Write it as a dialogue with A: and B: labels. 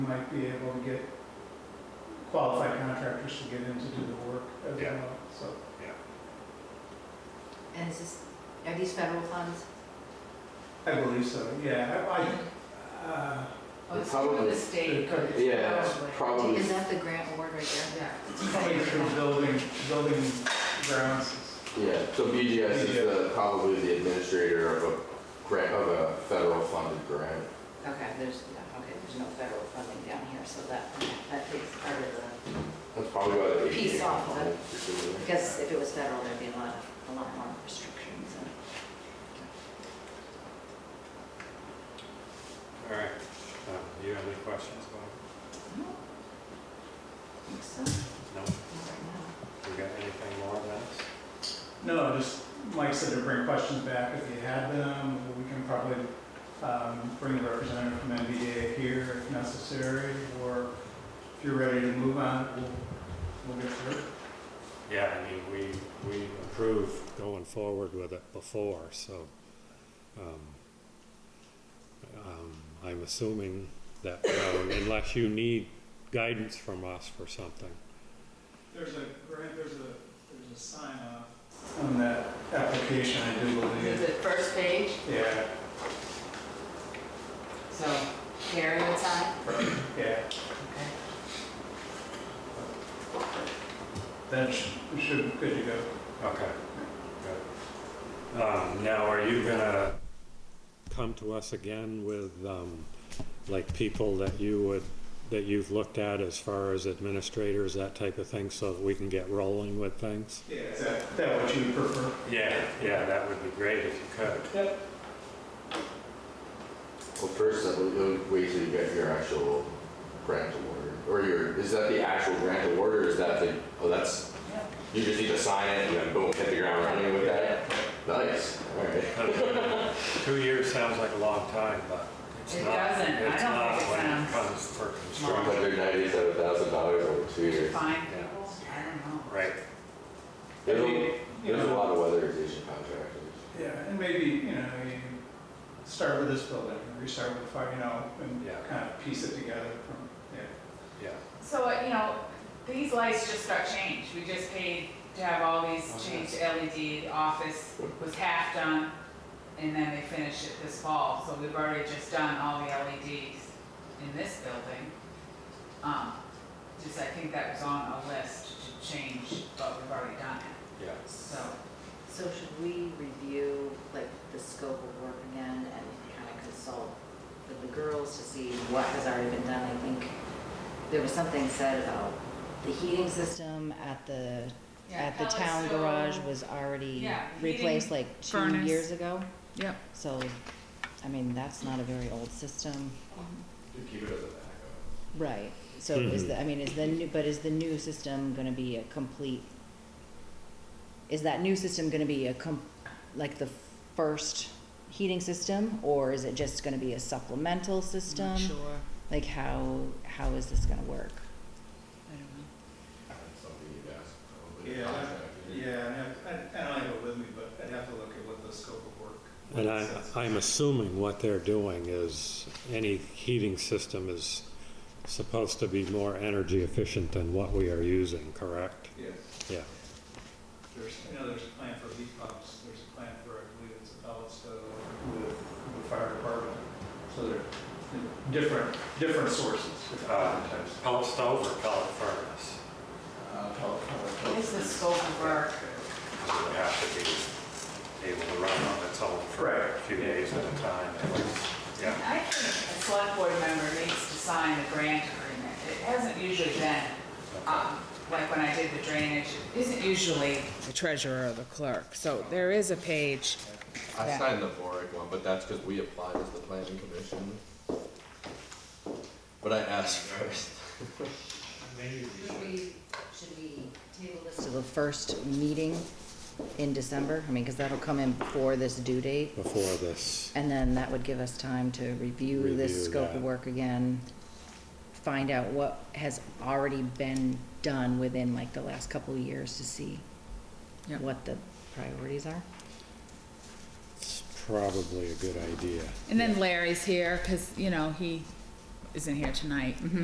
A: we might be able to get qualified contractors to get in to do the work as
B: Yeah.
A: well, so.
C: And is this, are these federal funds?
A: I believe so, yeah, I- I, uh,
D: Oh, it's through
E: Probably.
D: the state, but it's
E: Yeah, it's probably.
C: Oh, Is that the grant award right there?
D: Yeah.
A: probably through building, building grounds.
E: Yeah, so BGS is the, probably the administrator of a grant, of a federal funded grant.
C: Okay, there's, yeah, okay, there's no federal funding down here, so that, that takes part of the,
E: That's probably about an eight.
C: Piece off of it. because
E: Because.
C: if it was federal, there'd be a lot of, a lot more restrictions and.
B: All right, Um, do you have any questions about
C: No. Think so?
B: No,
C: Not right now.
B: we got anything more on that?
A: No, just, Mike said to bring questions back if you had them, we can probably um, bring a representative from NVDA here if necessary, or if you're ready to move on, we'll, we'll get through. it.
B: Yeah, I mean, we, we approved going forward with it before, so, um, um, I'm assuming that, um, unless you need guidance from us for something.
A: There's a grant, there's a, there's a sign off. On that application, I do
D: Is
A: believe.
D: it first page?
A: Yeah,
D: So Karen would sign?
A: yeah,
D: Okay.
A: that sh- should, good to go.
B: Okay. Good. Um, now, are you gonna come to us again with, um, like people that you would, that you've looked at as far as administrators, that type of thing, so that we can get rolling with things?
A: Yeah, is that, that what you prefer?
B: Yeah, yeah, that would be great if you could.
A: Yep.
E: Well, first, I would- I would wait till you get your actual grant award, or your, is that the actual grant award, or is that the, oh, that's, you just need to sign it and then boom, hit the ground running with that? Nice, all right.
B: Two years sounds like a long time, but it's
D: It
B: not.
D: doesn't. I
B: it's
D: don't
B: not
D: think it
B: when
D: sounds
B: comes for
D: long.
B: construction.
E: Hundred ninety-seven thousand dollars over
D: To
E: two years.
D: find
B: Yeah.
D: people? I don't know.
B: Right,
E: There's
A: I
E: a,
A: mean, you
E: there's a
A: know,
E: lot of weatherization contractors.
A: Yeah, and maybe, you know, you start with this building, restart with five, you know, and
B: Yeah.
A: kind of piece it together from, yeah.
B: yeah.
D: So, uh, you know, these lights just got changed. We just paid to have all these
B: Oh,
D: changed to LED. The Office was half done, and then they finished it this fall. So we've already just done all the LEDs in this building. Um, Just, I think that was on a list to change, but we've already done it,
B: Yeah.
D: so.
C: So should we review like the scope of work again and kind of consult with the girls to see what has already been done? I think there was something said about the heating system at the, at the town garage was already
D: Yeah,
C: replaced
D: heating,
C: like two
D: furnace.
C: years ago.
D: Yep.
C: So, I mean, that's not a very old system.
E: To keep it as a backup.
C: Right, so is
B: Mhm.
C: the, I mean, is the, new but is the new system gonna be a complete, is that new system gonna be a com, like the first heating system? Or is it just gonna be a supplemental system?
D: Sure.
C: Like how, how is this gonna work?
D: I don't know.
E: That's something you'd ask probably.
A: Yeah,
E: contractor.
A: Yeah, and I- I, I don't have it with me, but I'd have to look at what the scope of work.
B: And I,
A: says.
B: I'm assuming what they're doing is any heating system is supposed to be more energy efficient than what we are using, correct?
A: Yes.
B: Yeah.
A: There's, I know there's a plan for heat pumps, there's a plan for, I believe it's a pellet stove with the fire department. So they're different, different sources, different
B: Uh,
A: types.
B: Pellet stove or pellet furnace?
D: What is the scope of work?
B: It would have to be able to run on its own for a
A: Right.
B: few days at a time. at least. Yeah,
D: I think a select board member needs to sign the grant agreement. It hasn't usually been, um, like when I did the drainage, it isn't usually the treasurer or the clerk. So there is a page.
E: I
D: Yeah.
E: signed the Boric one, but that's because we applied as the planning commission. But I asked first.
C: Should we, should we table this? To the first meeting in December, I mean, cause that'll come in before this due date.
B: before this,
C: And then that would give us time to review
B: Review
C: this scope
B: that.
C: of work again, find out what has already been done within like the last couple of years to see
D: Yep.
C: what the priorities are.
B: it's probably a good idea.
D: And then Larry's here because, you know, he is in here tonight. Mhm.